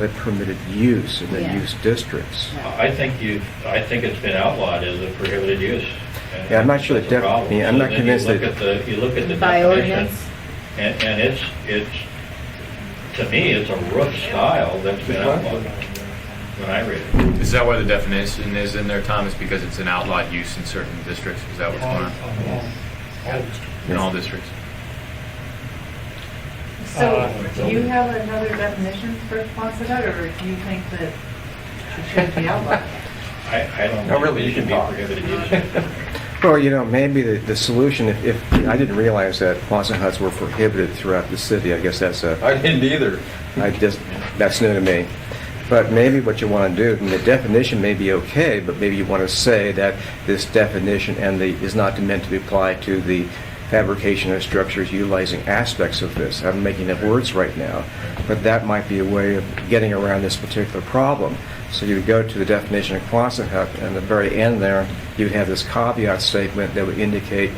the permitted use in the Yeah. use districts. I think you, I think it's been outlawed as a prohibited use. and Yeah, I'm not sure that's that a def- problem. yeah, I'm So not then convinced You look that- at the, you look at the By definition, ordinance? and, and it's, it's, to me, it's a roof style that's been outlawed when I read it. Is that why the definition is in there, Tom? Is because it's an outlawed use in certain districts? Is that what's going on? In all districts? So, do you have another definition for Quonset, or do you think that it should be outlawed? I, I don't No, think really, it you should can be talk. prohibited use. Well, you know, maybe the, the solution, if, if, I didn't realize that Quonset huts were prohibited throughout the city. I guess that's a, I didn't either. I just, that's new to me. But maybe what you want to do, and the definition may be okay, but maybe you want to say that this definition and the, is not meant to be applied to the fabrication of structures utilizing aspects of this. I'm making up words right now, but that might be a way of getting around this particular problem. So you would go to the definition of Quonset hut, and at the very end there, you would have this caveat statement that would indicate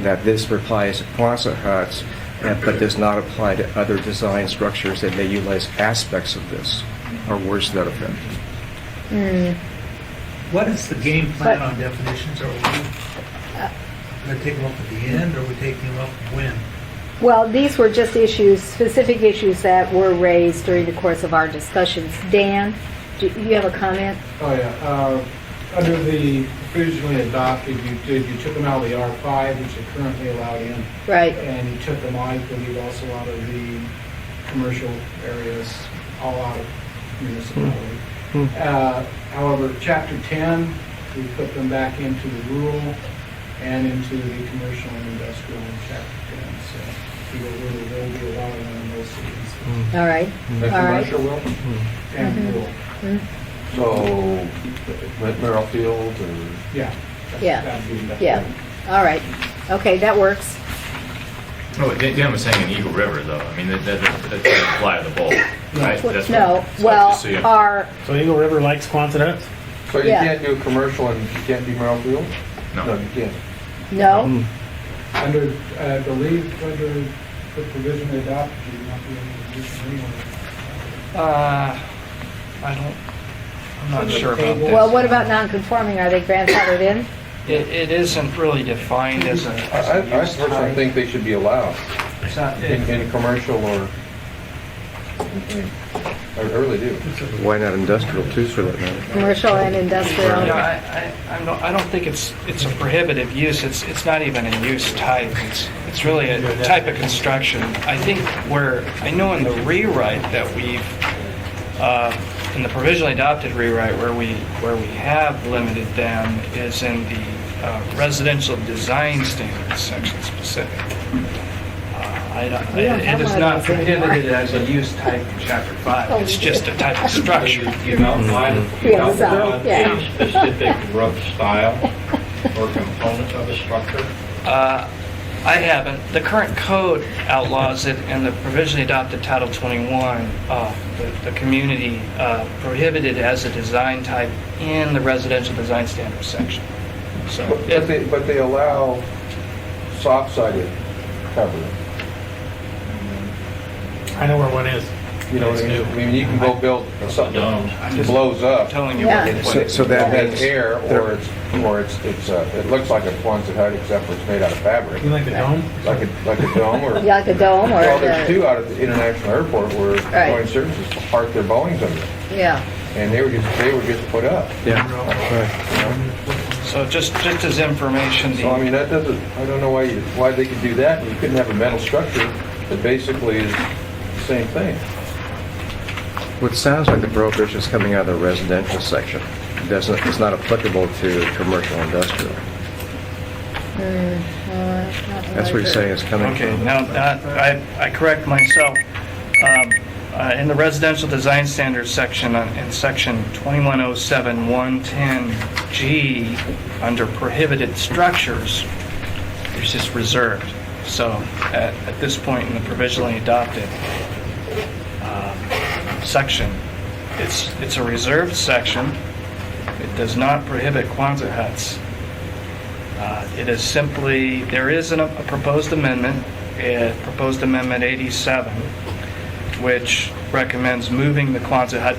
that this applies to Quonset huts, and- but does not apply to other design structures that may utilize aspects of this, or worse to that effect. What is the game plan But- Uh, on definitions? Are we going to take them up at the end, or are we taking them up when? Well, these were just issues, specific issues that were raised during the course of our discussions. Dan, do you have a comment? Oh, yeah. Uh, Under the provisionally adopted, you did, you took them out of the R5, which are currently allowed in, Right. and you took them, I believe, also out of the commercial areas, all out of municipality. Uh, However, Chapter 10, we put them back into the rural and into the commercial and industrial in Chapter 10, so people really will be allowing them in those cities All right. The All right. commercial will, and rural. Mm-hmm. so, like Merrifield or, Yeah. Yeah. That'd be- that'd be- Yeah. All right. Okay, that works. Oh, Dan Dan was saying in Eagle River, though. I mean, that, that, that doesn't apply to the bowl, right? That's No, what- so well, uh, just so you- our, So Eagle River likes Quonset huts? so you Yeah. can't do commercial and you can't do Merrifield? No, No. you can't. no, Mm-hmm. Under, uh, I believe, under the provision adopted, you might be able to do some anyway. Uh, I don't, I'm not sure about this. well, what about non-conforming? Are they grandfathered in? It, it isn't really defined as a, as I, I a use personally type. think they should be allowed It's not- in, in commercial or, I mean, I really do. Why not industrial too, for that matter? Commercial and industrial? No, I, I, I'm not- I don't think it's, it's a prohibitive use, it's, it's not even a use type, it's, it's really a type of construction. I think where, I know in the rewrite that we've, uh, in the provisionally adopted rewrite, where we, where we have limited them is in the uh, residential design standards section specific. Uh, I don't, We don't have it is one of not those anymore. prohibited as a use type in chapter Oh, five, it's we just a type of structure. You outline, you Yeah, so, outline yeah. a specific roof style or component of a structure. Uh, I haven't. The current code outlaws it, and the provisionally adopted Title 21, uh, the, the community uh, prohibited as a design type in the residential design standards section. So, But but it- they, but they allow soft-sided cover, I know where one is. you know what I mean? I mean, you can go build something Domes. that blows up. I'm telling you. Yeah. what it- what So- it- so that It means... has air, or it's, or it's, it's, uh, it looks like a Quonset hut, except for it's made out of fabric, You like the dome? like a, like a dome, or, Yeah, Like a dome or? well, there's the- two out at the international airport where Right. Boeing services park their Boeings under, Yeah. and they were just, they were just put up. Yeah. So just, just as information, So, I the, mean, that doesn't, I don't know why you, why they could do that, and you couldn't have a metal structure that basically is the same thing. What sounds like the prohibition is coming out of the residential section. It Doesn't, it's not applicable to commercial industrial. That's what you're saying is coming okay, from. now, uh, I, I correct myself. Um, uh, In the residential design standards section, uh, in section 2107-110G, under prohibited structures, it's just reserved. So at, at this point in the provisionally adopted um, section, it's, it's a reserved section. It does not prohibit Quonset huts. Uh, It is simply, there is an- eh, a proposed amendment, uh, proposed amendment 87, which recommends moving the Quonset hut